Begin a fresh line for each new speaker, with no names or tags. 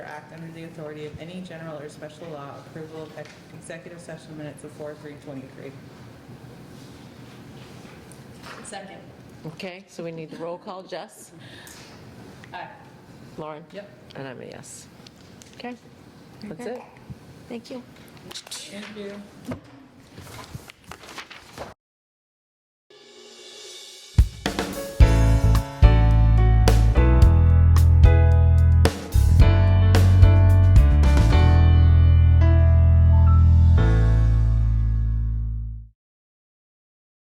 act under the authority of any general or special law, approval of ex- executive session minutes of 4/3/23.
Second.
Okay, so we need the roll call. Jess?
Aye.
Lauren?
Yep.
And I'm a yes. Okay, that's it.
Thank you.
Thank you.